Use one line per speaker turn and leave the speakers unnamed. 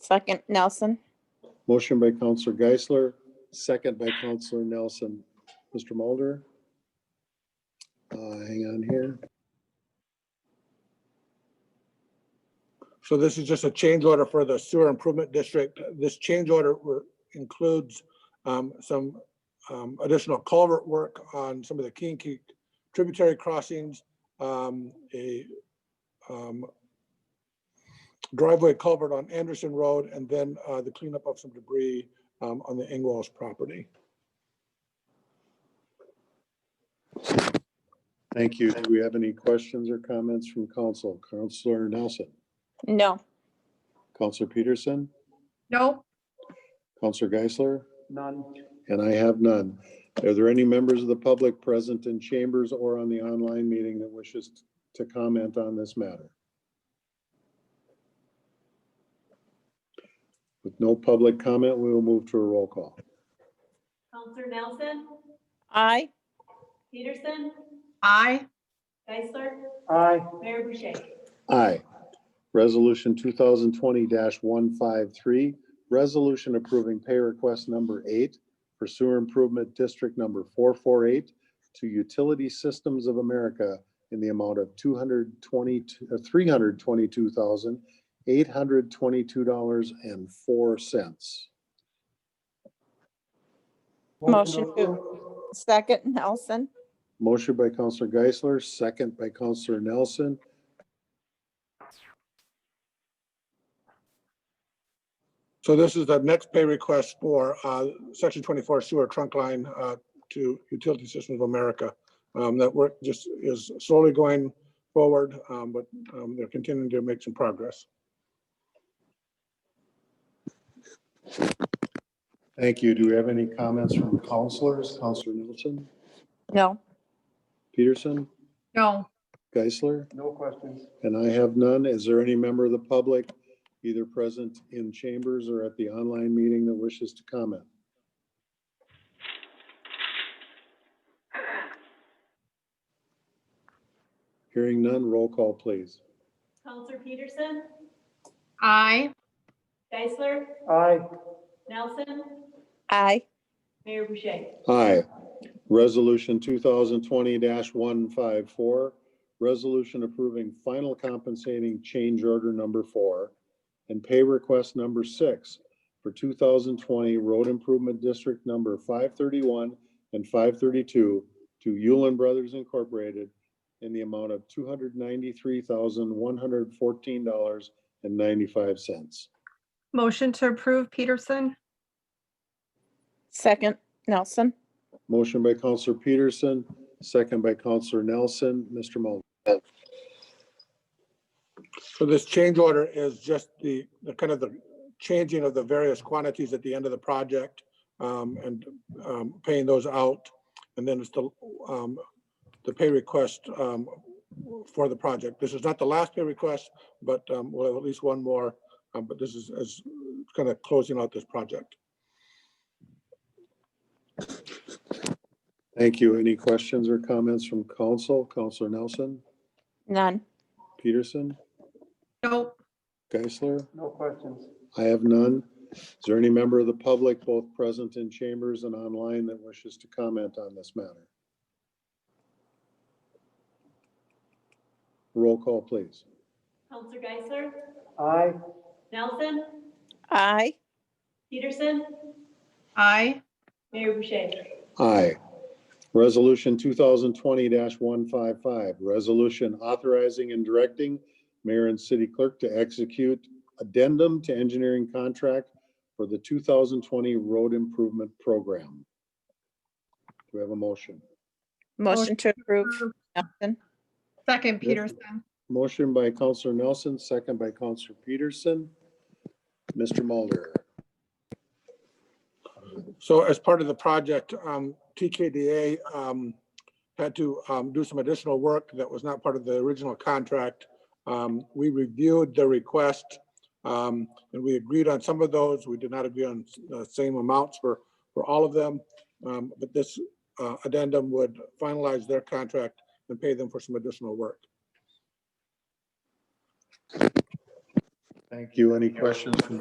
Second, Nelson.
Motion by Counselor Geisler, second by Counselor Nelson. Mr. Mulder? Uh, hang on here.
So this is just a change order for the sewer improvement district. This change order re- includes um, some um, additional culvert work on some of the King Creek tributary crossings, um, a um, driveway culvert on Anderson Road, and then uh, the cleanup of some debris um, on the Ingwalls property.
Thank you. Do we have any questions or comments from council? Counselor Nelson?
No.
Counselor Peterson?
Nope.
Counselor Geisler?
None.
And I have none. Are there any members of the public present in chambers or on the online meeting that wishes to comment on this matter? With no public comment, we will move to a roll call.
Counselor Nelson,
Aye.
Peterson,
Aye.
Geisler,
Aye.
Mayor Boucher.
Aye. Resolution two thousand twenty one five three, resolution approving pay request number eight for sewer improvement district number four four eight to Utility Systems of America in the amount of two hundred twenty, uh, three hundred twenty-two thousand, eight hundred twenty-two dollars and four cents.
Motion to, second, Nelson.
Motion by Counselor Geisler, second by Counselor Nelson.
So this is the next pay request for uh, Section 24 sewer trunk line uh, to Utility Systems of America. Um, That work just is slowly going forward, um, but um, they're continuing to make some progress.
Thank you. Do we have any comments from counselors? Counselor Nelson,
No.
Peterson,
No.
Geisler?
No questions.
And I have none. Is there any member of the public, either present in chambers or at the online meeting that wishes to comment? Hearing none, roll call, please.
Counselor Peterson,
Aye.
Geisler,
Aye.
Nelson,
Aye.
Mayor Boucher.
Aye. Resolution two thousand twenty one five four, resolution approving final compensating change order number four and pay request number six for two thousand twenty road improvement district number five thirty-one and five thirty-two to Yulin Brothers Incorporated in the amount of two hundred ninety-three thousand, one hundred fourteen dollars and ninety-five cents.
Motion to approve Peterson?
Second, Nelson.
Motion by Counselor Peterson, second by Counselor Nelson. Mr. Mulder?
So this change order is just the, the kind of the changing of the various quantities at the end of the project um, and um, paying those out. And then it's the, um, the pay request um, for the project. This is not the last pay request, but um, we'll have at least one more. um, But this is, is kind of closing out this project.
Thank you. Any questions or comments from council? Counselor Nelson,
None.
Peterson,
Nope.
Geisler?
No questions.
I have none. Is there any member of the public, both present in chambers and online, that wishes to comment on this matter? Roll call, please.
Counselor Geisler,
Aye.
Nelson,
Aye.
Peterson,
Aye.
Mayor Boucher.
Aye. Resolution two thousand twenty one five five, resolution authorizing and directing mayor and city clerk to execute addendum to engineering contract for the two thousand twenty road improvement program. Do we have a motion?
Motion to approve, Nelson.
Second Peterson?
Motion by Counselor Nelson, second by Counselor Peterson. Mr. Mulder?
So as part of the project, um, TKDA um, had to um, do some additional work that was not part of the original contract. Um, We reviewed the request, um, and we agreed on some of those. We did not agree on the same amounts for, for all of them. Um, But this uh, addendum would finalize their contract and pay them for some additional work.
Thank you. Any questions from